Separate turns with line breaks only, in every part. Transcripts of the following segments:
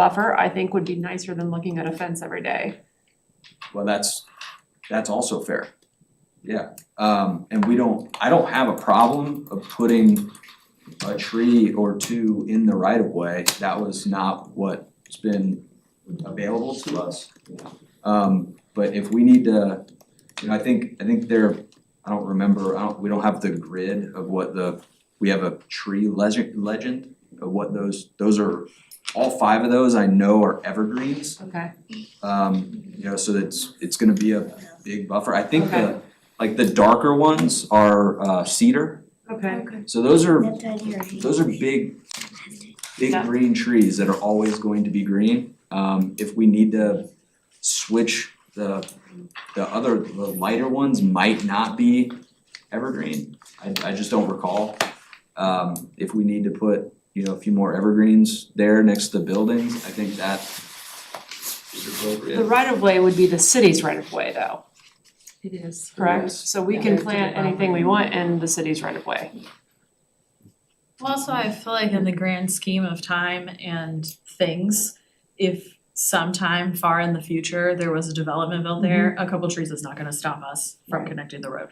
buffer, I think would be nicer than looking at a fence every day.
Well, that's, that's also fair. Yeah, um, and we don't, I don't have a problem of putting a tree or two in the right of way. That was not what's been available to us. Um, but if we need to, you know, I think, I think there, I don't remember, I don't, we don't have the grid of what the, we have a tree legend, legend of what those, those are, all five of those I know are evergreens.
Okay.
Um, you know, so it's, it's gonna be a big buffer. I think the, like the darker ones are uh cedar.
Okay.
So those are,
That's on your hand.
those are big, big
Yeah.
green trees that are always going to be green. Um, if we need to switch the, the other, the lighter ones might not be evergreen. I, I just don't recall. Um, if we need to put, you know, a few more evergreens there next to buildings, I think that is appropriate.
The right of way would be the city's right of way though,
It is.
correct?
Yes.
So we
Yeah.
can
Yeah.
plant anything we want in the city's right of way.
Well, also, I feel like in the grand scheme of time and things, if sometime far in the future, there was a development built there, a couple trees is not gonna stop us from
Mm-hmm. Right.
connecting the road.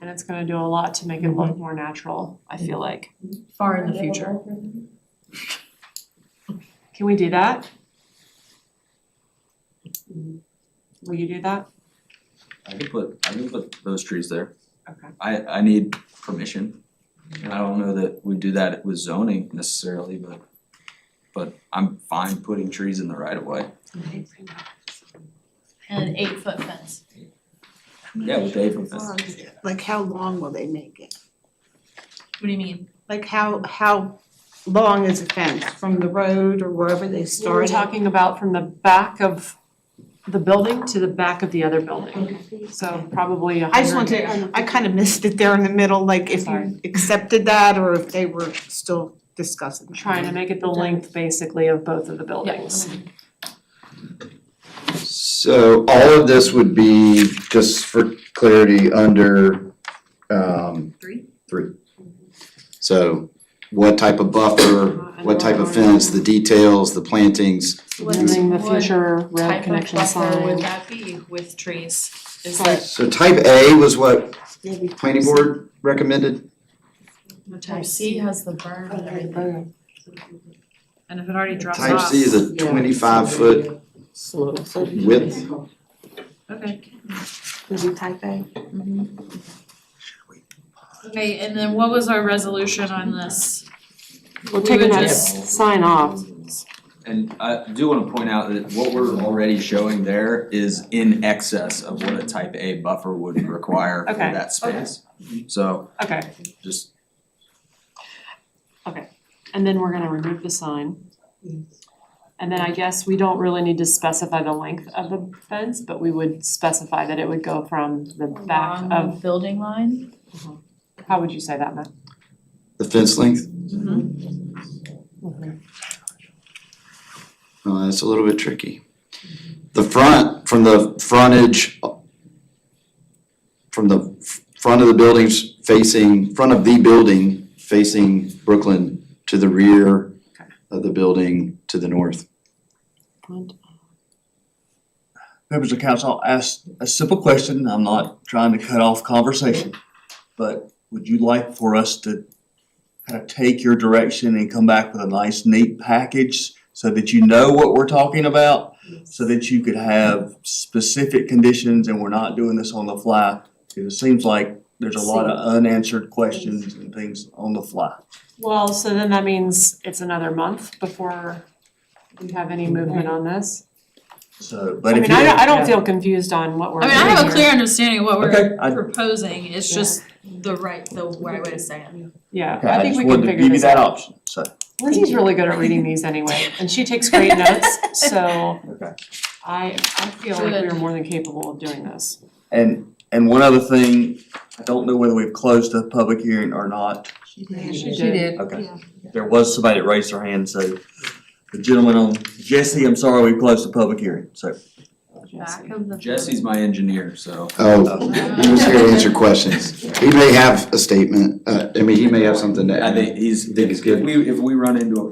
And it's gonna do a lot to make it look more natural, I feel like.
Far in the future.
Can we do that? Will you do that?
I could put, I could put those trees there.
Okay.
I I need permission. And I don't know that we do that with zoning necessarily, but but I'm fine putting trees in the right of way.
And an eight foot fence.
Yeah, with the apron fence.
Like how long will they make it?
What do you mean?
Like how how long is the fence from the road or wherever they
We We're
started?
talking about from the back of the building to the back of the other building, so probably a hundred.
I just want to, I kind of missed it there in the middle, like if
Sorry.
you accepted that or if they were still discussing.
Trying to make it the length basically of both of the buildings.
So all of this would be, just for clarity, under, um,
Three?
three. So what type of buffer, what type of fence, the details, the plantings,
Building the
What
future rail
Type of
connection
buffer
sign.
would that be with trees? Is
Sorry.
that
so type A was what
Maybe
planning board recommended?
type C has the berm and everything? And if it already drops
Type
off.
C is a twenty-five foot width,
Okay.
Is it type A?
Okay, and then what was our resolution on this?
We're
We
taking
would
that
just-
sign off,
And I do wanna point out that what we're already showing there is in excess of what a type A buffer would require for
Okay.
that space. So
okay,
just,
and then we're gonna remove the sign. And then I guess we don't really need to specify the length of the fence, but we would specify that it would go from the back
Along
of,
the building line?
how would you say that, Matt?
the fence length, uh, that's a little bit tricky. The front, from the frontage, from the f- front of the buildings facing, front of the building facing Brooklyn to the rear of the building to the north.
members of council, I'll ask a simple question, I'm not trying to cut off conversation. But would you like for us to kind of take your direction and come back with a nice neat package? So that you know what we're talking about, so that you could have specific conditions and we're not doing this on the fly. Because it seems like there's a lot of unanswered questions and things on the fly.
Well, so then that means it's another month before we have any movement on this.
So,
I
but if
mean,
you.
I don't, I don't feel confused on what we're
I mean,
doing
I
here.
have a clear understanding of what
Okay,
we're
I-
proposing, it's
Yeah.
just the right, the right way to say it.
Yeah,
okay,
I
I
think
just
we can
wanted to
figure
give you
this
that
out.
option, so.
Lindsay's really good at reading these anyway, and she takes great notes, so
Okay.
I, I feel like we
Good.
are more than capable of doing this.
And, and one other thing, I don't know whether we've closed the public hearing or not.
She
She
did.
Okay. There was somebody that raised their hand, so the gentleman on, Jesse, I'm sorry, we closed the public hearing, so.
Back of the.
Jesse's my engineer, so
Oh, he was here to answer questions. He may have a statement, uh, I mean, he may have something to add.
I think he's,
Think it's
if
good.
we, if we run into a